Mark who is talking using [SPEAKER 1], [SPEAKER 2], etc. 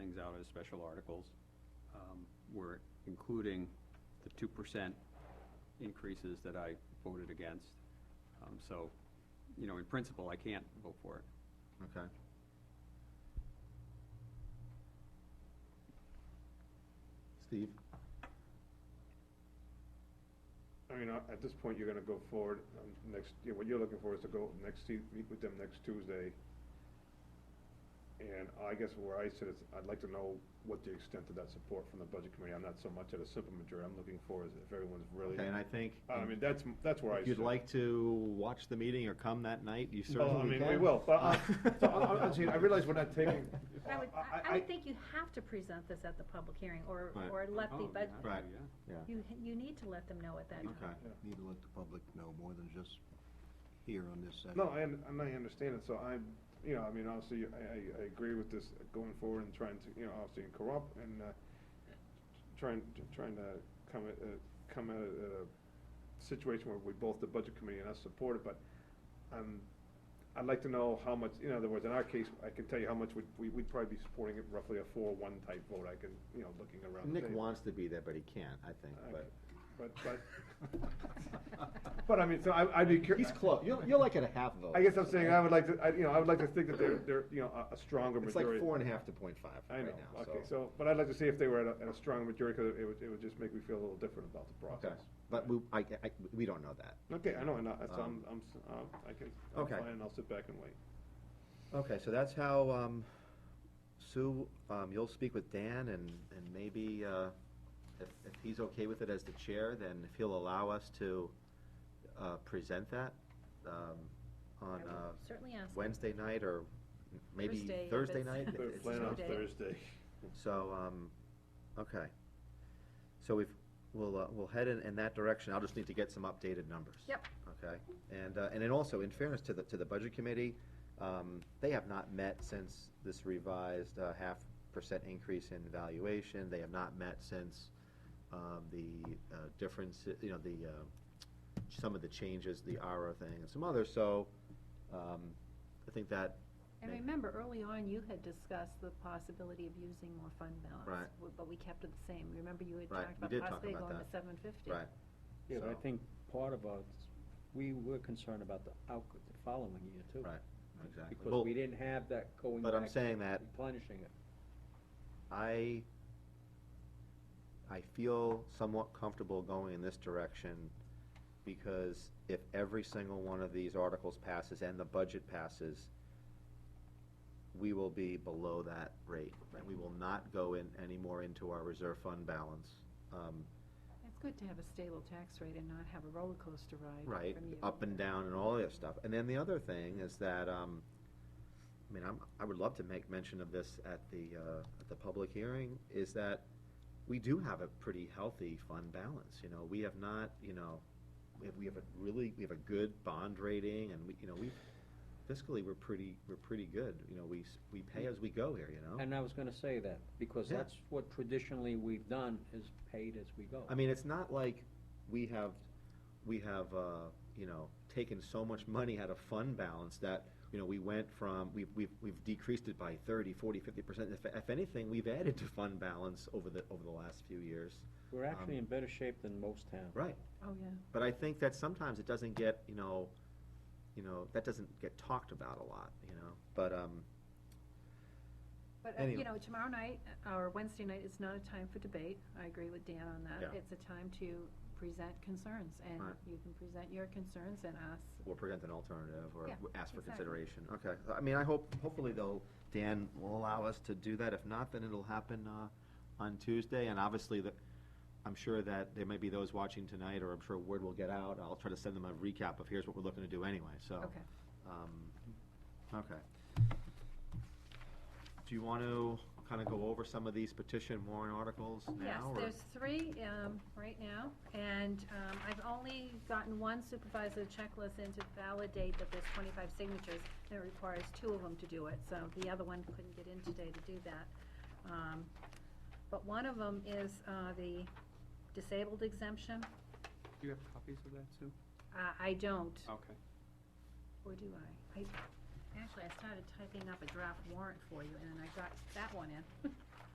[SPEAKER 1] out as special articles. Um, We're including the two percent increases that I voted against. Um, So, you know, in principle, I can't vote for it.
[SPEAKER 2] Okay. Steve?
[SPEAKER 3] I mean, uh, at this point, you're gonna go forward, um, next, you know, what you're looking for is to go next, Tu- meet with them next Tuesday. And I guess where I sit is, I'd like to know what the extent of that support from the budget committee, I'm not so much at a simple majority, I'm looking for is if everyone's really,
[SPEAKER 2] Okay, and I think
[SPEAKER 3] I mean, that's, that's where I
[SPEAKER 2] if
[SPEAKER 3] sit.
[SPEAKER 2] you'd like to watch the meeting or come that night, you
[SPEAKER 3] Well,
[SPEAKER 2] certainly can.
[SPEAKER 3] I mean, we will, but, uh, so, I, I- I'm saying, I realize we're not taking.
[SPEAKER 4] I would, I-
[SPEAKER 3] I-
[SPEAKER 4] I would think you have to present this at the public hearing, or,
[SPEAKER 2] Right.
[SPEAKER 4] or let the,
[SPEAKER 1] Oh,
[SPEAKER 4] but,
[SPEAKER 1] yeah,
[SPEAKER 2] Right.
[SPEAKER 1] yeah.
[SPEAKER 2] Yeah,
[SPEAKER 4] you, you need to let them know at that time.
[SPEAKER 2] okay.
[SPEAKER 5] Need to let the public know more than just here on this side.
[SPEAKER 3] No, I, un- and I understand it, so I'm, you know, I mean, obviously, I, I, I agree with this going forward and trying to, you know, obviously corrupt and, uh, trying, trying to come at, uh, come at a, at a situation where we both, the budget committee and us support it, but, um, I'd like to know how much, in other words, in our case, I can tell you how much we'd, we- we'd probably be supporting it roughly a four-one type vote, I can, you know, looking around the
[SPEAKER 2] Nick
[SPEAKER 3] table. Uh,
[SPEAKER 2] wants to be there, but he can't, I think, but.
[SPEAKER 3] But, but, but I mean, so I, I'd be curious.
[SPEAKER 2] He's close, you're, you're like at a half vote.
[SPEAKER 3] I guess I'm saying uh, I would like to, I, you know, I would like to think that they're, they're, you know, a, a stronger
[SPEAKER 2] It's like
[SPEAKER 3] majority.
[SPEAKER 2] four and a half to point five
[SPEAKER 3] I
[SPEAKER 2] right
[SPEAKER 3] know,
[SPEAKER 2] now,
[SPEAKER 3] okay, so, but I'd like to see if they were at a, at a stronger majority, cause it would, it would just make me feel a little different about the
[SPEAKER 2] Okay,
[SPEAKER 3] process.
[SPEAKER 2] but we, I, I, we don't know that.
[SPEAKER 3] Okay, I know, and I, so I'm,
[SPEAKER 2] Um,
[SPEAKER 3] I'm, s- um, I can, I'm
[SPEAKER 2] okay.
[SPEAKER 3] fine, and I'll sit back and wait.
[SPEAKER 2] Okay, so that's how, um, Sue, um, you'll speak with Dan and, and maybe, uh, if, if he's okay with it as the chair, then if he'll allow us to, uh, present that, um, on,
[SPEAKER 4] I will
[SPEAKER 2] uh,
[SPEAKER 4] Certainly ask. them.
[SPEAKER 2] Wednesday night or maybe
[SPEAKER 4] Thursday, if
[SPEAKER 2] Thursday
[SPEAKER 4] it's-
[SPEAKER 2] night. if
[SPEAKER 4] They're
[SPEAKER 2] it's-
[SPEAKER 3] Plan
[SPEAKER 4] no
[SPEAKER 3] on
[SPEAKER 4] date.
[SPEAKER 3] Thursday.
[SPEAKER 2] So, um, okay. So we've, we'll, uh, we'll head in, in that direction. I'll just need to get some updated numbers.
[SPEAKER 4] Yep.
[SPEAKER 2] Okay, and, uh, and then also, in fairness to the, to the budget committee, um, they have not met since this revised, uh, half percent increase in valuation. They have not met since, um, the, uh, difference, you know, the, uh, some of the changes, the ARA thing and some others, so, um, I think that,
[SPEAKER 6] And remember, early on, you had discussed the possibility of using more fund balance.
[SPEAKER 2] Right.
[SPEAKER 6] w- But we kept it the same. Remember, you had
[SPEAKER 2] Right, we
[SPEAKER 6] talked
[SPEAKER 2] did
[SPEAKER 6] about
[SPEAKER 2] talk
[SPEAKER 6] possibly
[SPEAKER 2] about
[SPEAKER 6] going
[SPEAKER 2] that.
[SPEAKER 6] to seven fifty?
[SPEAKER 2] right,
[SPEAKER 7] Yeah, but I
[SPEAKER 2] So-
[SPEAKER 7] think part of us, we were concerned about the outcome the following year too.
[SPEAKER 2] right, exactly. Well-
[SPEAKER 7] Because we didn't have that going back.
[SPEAKER 2] but I'm saying that-
[SPEAKER 7] Replenishing it.
[SPEAKER 2] I, I feel somewhat comfortable going in this direction because if every single one of these articles passes and the budget passes, we will be below that rate. And we will not go in anymore into our reserve fund balance. Um,
[SPEAKER 6] It's good to have a stable tax rate and not have a roller coaster ride from
[SPEAKER 2] Right,
[SPEAKER 6] year to
[SPEAKER 2] up and
[SPEAKER 6] year.
[SPEAKER 2] down and all that stuff. And then the other thing is that, um, I mean, I'm, I would love to make mention of this at the, uh, at the public hearing, is that we do have a pretty healthy fund balance, you know, we have not, you know, we have, we have a really, we have a good bond rating and we, you know, we fiscally, we're pretty, we're pretty good, you know, we, s- we pay as we go here, you know?
[SPEAKER 7] And I was gonna say that, because
[SPEAKER 2] Yeah.
[SPEAKER 7] that's what traditionally we've done, is paid as we go.
[SPEAKER 2] I mean, it's not like we have, we have, uh, you know, taken so much money out of fund balance that, you know, we went from, we've, we've, we've decreased it by thirty, forty, fifty percent. If, if anything, we've added to fund balance over the, over the last few years.
[SPEAKER 7] We're actually
[SPEAKER 2] um,
[SPEAKER 7] in better shape than most towns.
[SPEAKER 2] Right,
[SPEAKER 6] Oh, yeah.
[SPEAKER 2] but I think that sometimes it doesn't get, you know, you know, that doesn't get talked about a lot, you know, but, um,
[SPEAKER 6] But, uh,
[SPEAKER 2] Anyway.
[SPEAKER 6] you know, tomorrow night, uh, or Wednesday night, is not a time for debate. I agree with Dan on that.
[SPEAKER 2] Yeah.
[SPEAKER 6] It's a time to present concerns, and
[SPEAKER 2] Right.
[SPEAKER 6] you can present your concerns and ask
[SPEAKER 2] or present an alternative or
[SPEAKER 6] Yeah,
[SPEAKER 2] ask for
[SPEAKER 6] exactly.
[SPEAKER 2] consideration. Okay, I mean, I hope, hopefully they'll, Dan will allow us to do that. If not, then it'll happen, uh, on Tuesday. And obviously, the, I'm sure that there may be those watching tonight, or I'm sure word will get out. I'll try to send them a recap of here's what we're looking to do anyway, so.
[SPEAKER 6] Okay.
[SPEAKER 2] um, Okay. Do you want to kind of go over some of these petition warrant articles
[SPEAKER 6] Yes,
[SPEAKER 2] now? or-
[SPEAKER 6] there's three um, right now, and um, I've only gotten one supervisor checklist in to validate that there's 25 signatures, and it requires two of them to do it, so the other one couldn't get in today to do that. Um, But one of them is uh, the disabled exemption.
[SPEAKER 1] Do you have copies of that, Sue?
[SPEAKER 6] Uh, I don't,
[SPEAKER 1] Okay.
[SPEAKER 6] or do I? I? Actually, I started typing up a draft warrant for you, and then I got that one in.